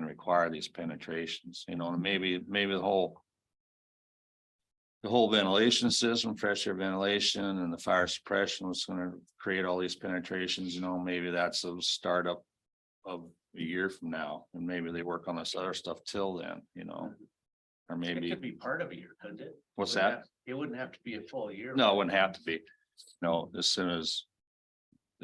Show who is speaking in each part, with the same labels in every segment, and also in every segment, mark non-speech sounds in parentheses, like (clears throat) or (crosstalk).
Speaker 1: require these penetrations, you know, and maybe, maybe the whole. The whole ventilation system, fresh air ventilation and the fire suppression was gonna create all these penetrations, you know, maybe that's a startup. Of a year from now, and maybe they work on this other stuff till then, you know? Or
Speaker 2: It
Speaker 1: maybe,
Speaker 2: could be part of a year, couldn't it?
Speaker 1: what's
Speaker 2: Wouldn't
Speaker 1: that?
Speaker 2: have- It wouldn't have to be a full year.
Speaker 1: No, it wouldn't have to be. No, as soon as.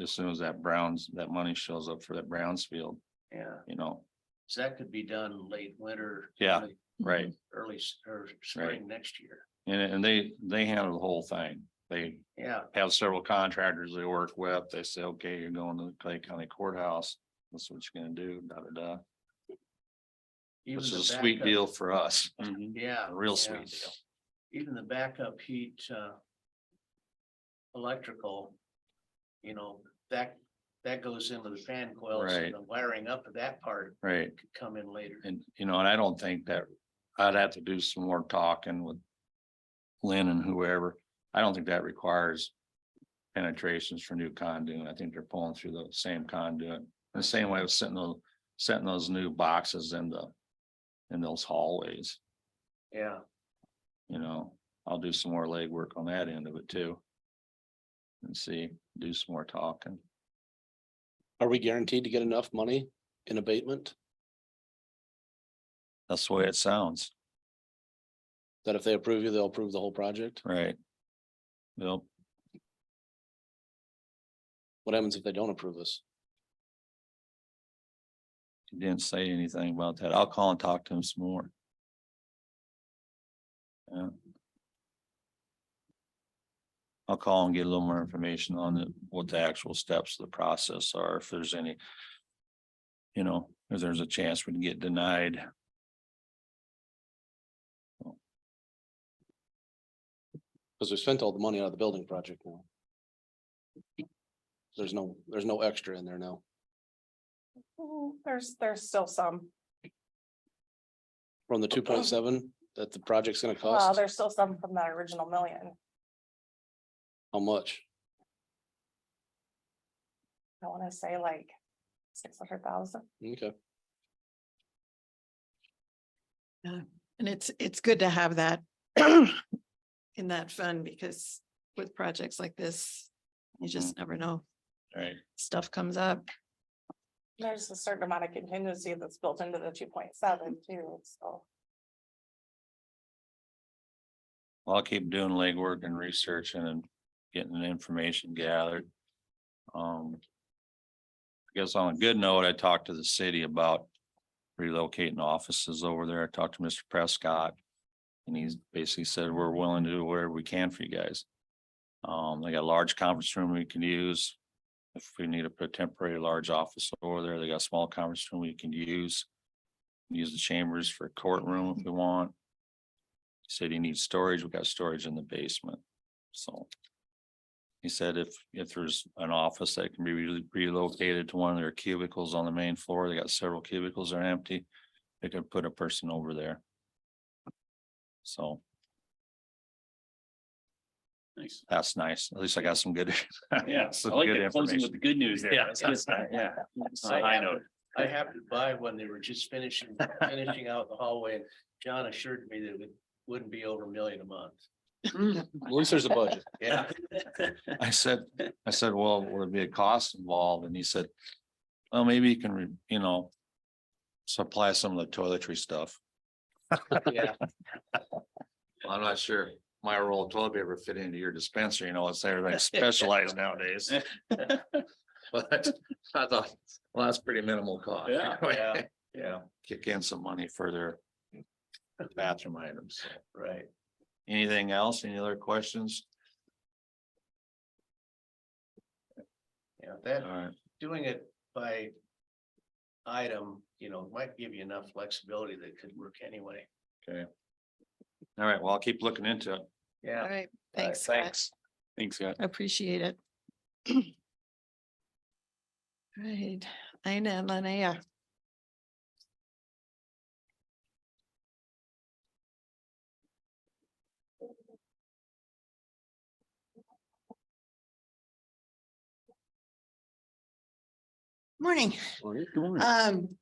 Speaker 1: As soon as that Browns, that money shows up for that Brownsfield,
Speaker 2: Yeah,
Speaker 1: you know,
Speaker 2: so that could be done late winter.
Speaker 1: Yeah.
Speaker 2: early-
Speaker 1: right?
Speaker 2: Early s- or spring next year.
Speaker 1: And, and they, they handle the whole thing. They
Speaker 2: Yeah,
Speaker 1: have several contractors they work with. They say, okay, you're going to the Clay County Courthouse. This is what you're gonna do, da, da, da.
Speaker 2: even
Speaker 1: This
Speaker 2: the
Speaker 1: is a sweet
Speaker 2: backup- Mm-hmm.
Speaker 1: deal for us.
Speaker 2: Yeah.
Speaker 1: A real
Speaker 2: yeah.
Speaker 1: sweet deal.
Speaker 2: Even the backup heat, uh. Electrical. You know, that, that goes into the fan coils
Speaker 1: Right.
Speaker 2: and the wiring up of that part
Speaker 1: Right.
Speaker 2: could come in later.
Speaker 1: And, you know, and I don't think that, I'd have to do some more talking with Lynn and whoever. I don't think that requires penetrations for new conduit. I think they're pulling through the same conduit. The same way of setting those, setting those new boxes in the, in those hallways,
Speaker 2: Yeah,
Speaker 1: you know, I'll do some more legwork on that end of it too. And see, do some more talking.
Speaker 3: Are we guaranteed to get enough money in abatement?
Speaker 1: That's the way it sounds,
Speaker 3: That if they approve you, they'll approve the whole project?
Speaker 1: right? Well,
Speaker 3: What happens if they don't approve us?
Speaker 1: he didn't say anything about that. I'll call and talk to him some more. Yeah. I'll call and get a little more information on the- what the actual steps of the process are, if there's any. You know, if there's a chance we can get denied.
Speaker 3: Because we spent all the money out of the building project now. There's no, there's no extra in there now
Speaker 4: Mm, There's, there's still some,
Speaker 3: from the two point seven that the project's gonna
Speaker 4: uh,
Speaker 3: cost.
Speaker 4: there's still some from that original million.
Speaker 3: How much?
Speaker 4: I wanna say like six hundred thousand.
Speaker 3: Okay,
Speaker 5: And it's, it's good to have that in that fund because with projects like this, you just never know,
Speaker 1: Right.
Speaker 5: stuff comes up.
Speaker 4: There's a certain amount of contingency that's built into the two point seven too, so.
Speaker 1: Well, I'll keep doing legwork and researching and getting the information gathered. Um. I guess on a good note, I talked to the city about relocating offices over there. I talked to Mr. Prescott. And he's basically said, we're willing to do whatever we can for you guys. Um, they got a large conference room we can use. If we need to put a temporary large office over there, they got a small conference room we can use. Use the chambers for courtroom if we want. Said he needs storage, we got storage in the basement, so. He said if, if there's an office that can be re- relocated to one of their cubicles on the main floor, they got several cubicles that are empty. They could put a person over there. So (laughs)
Speaker 6: Nice.
Speaker 1: that's nice, at least I got some good. (laughs)
Speaker 6: Yeah, I
Speaker 1: some
Speaker 6: like
Speaker 1: good
Speaker 6: that closing
Speaker 1: information.
Speaker 6: with the good news there.
Speaker 1: Yeah.
Speaker 6: That's good stuff.
Speaker 1: (laughs)
Speaker 6: Yeah. So
Speaker 2: I
Speaker 6: I
Speaker 2: have
Speaker 6: know.
Speaker 2: I happened to buy when they were just finishing, finishing out the hallway. and John assured me that it wouldn't be over a million a
Speaker 3: (laughs)
Speaker 2: month.
Speaker 3: at least there's a budget.
Speaker 2: Yeah.
Speaker 1: I said, I said, well, would it be a cost involved? And he said, well, maybe you can, re- you know. Supply some of the toiletry stuff. (laughs)
Speaker 2: Yeah,
Speaker 1: Well, I'm not sure my roll of toilet paper fit into your dispenser, you know, it's (laughs) everything specialized (laughs) nowadays. But I thought, well, that's pretty minimal cost.
Speaker 6: Yeah,
Speaker 2: yeah.
Speaker 1: Yeah, kick in some money for their bathroom items.
Speaker 2: right.
Speaker 1: Anything else? Any other questions?
Speaker 2: Yeah, that,
Speaker 1: All right,
Speaker 2: doing it by item, you know, might give you enough flexibility that could work anyway.
Speaker 1: all right, well, I'll keep looking into it.
Speaker 5: All
Speaker 2: Yeah.
Speaker 5: right, thanks. Scott.
Speaker 1: Thanks.
Speaker 6: Thanks, Scott.
Speaker 5: I Appreciate it. (clears throat) All Right, I know, Linnea. Morning.
Speaker 3: All right.
Speaker 5: Um,